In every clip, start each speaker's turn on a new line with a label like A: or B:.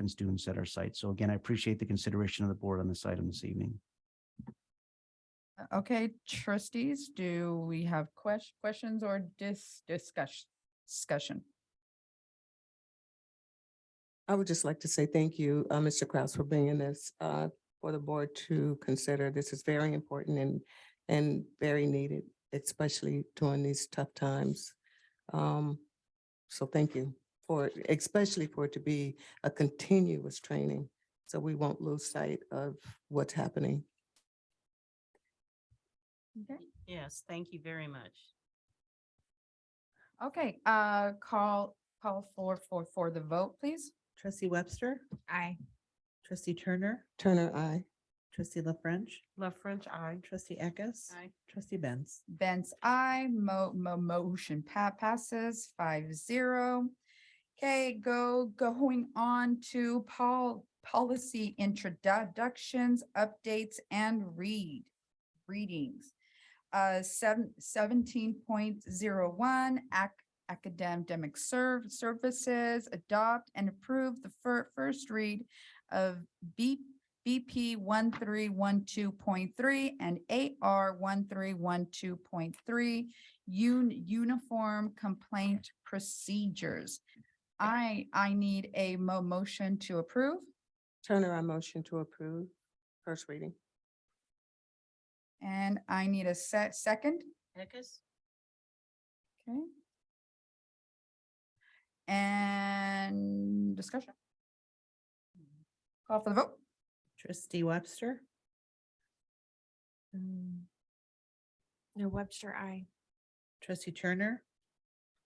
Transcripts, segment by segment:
A: and students at our site. So again, I appreciate the consideration of the board on this item this evening.
B: Okay, trustees, do we have ques- questions or dis- discuss- discussion?
C: I would just like to say thank you, uh, Mr. Kraus, for bringing this, uh, for the board to consider. This is very important and, and very needed, especially during these tough times. Um, so thank you for, especially for it to be a continuous training. So we won't lose sight of what's happening.
B: Okay,
D: Yes, thank you very much.
B: Okay. uh, call, call for, for, for the vote, please.
E: Trustee Webster,
B: Aye.
E: trustee Turner,
C: Turner, I.
E: trustee La French,
D: Love French, I.
E: trustee Eckes.
D: Aye.
E: Trustee Benz.
B: Benz, I, mo- mo- motion pa- passes five zero. Okay, go, going on to Paul, policy introductions, updates and read, readings. Uh, seven, seventeen point zero one, ac- academic serv- services, adopt and approve the fir- first read of B BP one three one two point three and AR one three one two point three, uniform complaint procedures. I, I need a mo- motion to approve
C: Turner, I motion to approve. First reading.
B: and I need a se- second,
D: Eckes?
B: okay? And discussion? Call for the vote?
E: Trustee Webster,
F: Mm. No, Webster, I.
E: trustee Turner,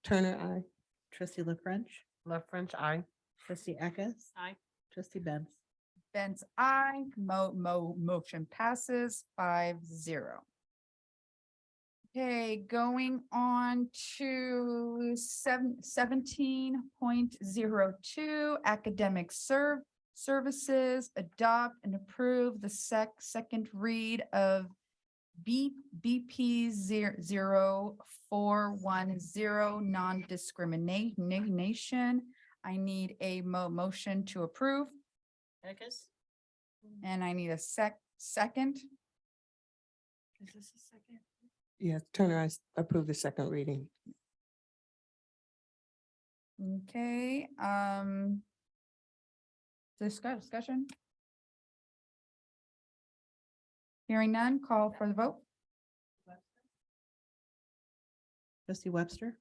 C: Turner, I.
E: trustee La French,
D: Love French, I.
E: trustee Eckes.
D: Aye.
E: Trustee Benz.
B: Benz, I, mo- mo- motion passes five zero. Okay, going on to seven, seventeen point zero two, academic serv- services, adopt and approve the sec, second read of B, BP zero, zero, four, one, zero, non-discrimination. I need a mo- motion to approve.
D: Eckes?
B: And I need a sec, second,
F: Is this a second?
C: Yes, Turner, I s- approve the second reading.
B: okay, um. Discuss, discussion? Hearing none, call for the vote,
E: Trustee Webster,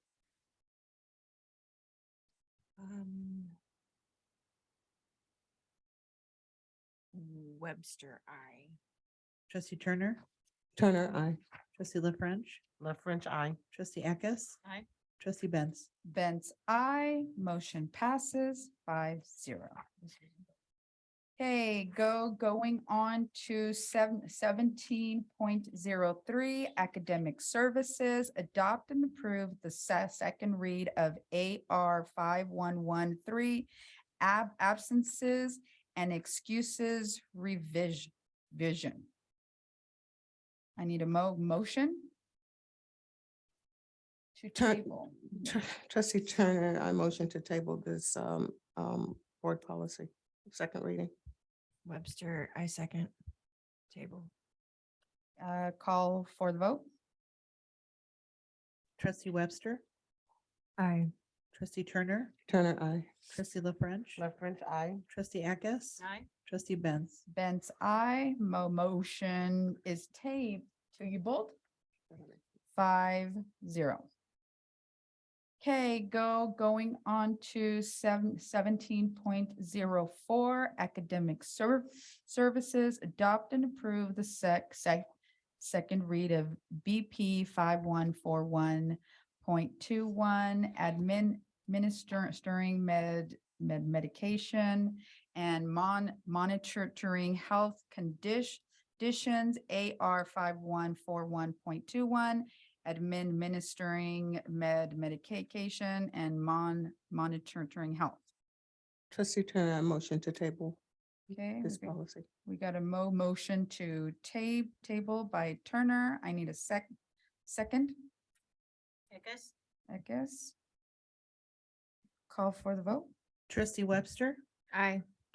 F: Um. Webster, I.
E: trustee Turner,
C: Turner, I.
E: trustee La French,
D: Love French, I.
E: trustee Eckes.
D: Aye.
E: Trustee Benz.
B: Benz, I, motion passes five zero. Okay, go, going on to seven, seventeen point zero three, academic services, adopt and approve the se- second read of AR five one one three, ab, absences and excuses revision, vision. I need a mo- motion to
C: Tur-
B: table.
C: Tr- Trustee Turner, I motion to table this um um board policy, second reading.
F: Webster, I second. Table.
B: Uh, call for the vote?
E: Trustee Webster,
F: I.
E: trustee Turner,
C: Turner, I.
E: trustee La French,
D: Love French, I.
E: trustee Eckes.
D: Aye.
E: Trustee Benz.
B: Benz, I, mo- motion is taped to you both, five, zero. Okay, go, going on to seven, seventeen point zero four, academic serv- services, adopt and approve the sec, sec, second read of BP five one four one point two one, admin, ministering med, med, medication, and mon- monitoring health condition conditions, AR five one four one point two one, admin ministering med medication and mon- monitoring health.
C: Trustee Turner, I motion to table
B: Okay,
C: this
B: we-
C: policy.
B: we got a mo- motion to ta- table by Turner. I need a sec- second,
D: Eckes?
B: I guess. Call for the vote.
E: Trustee Webster,
F: I.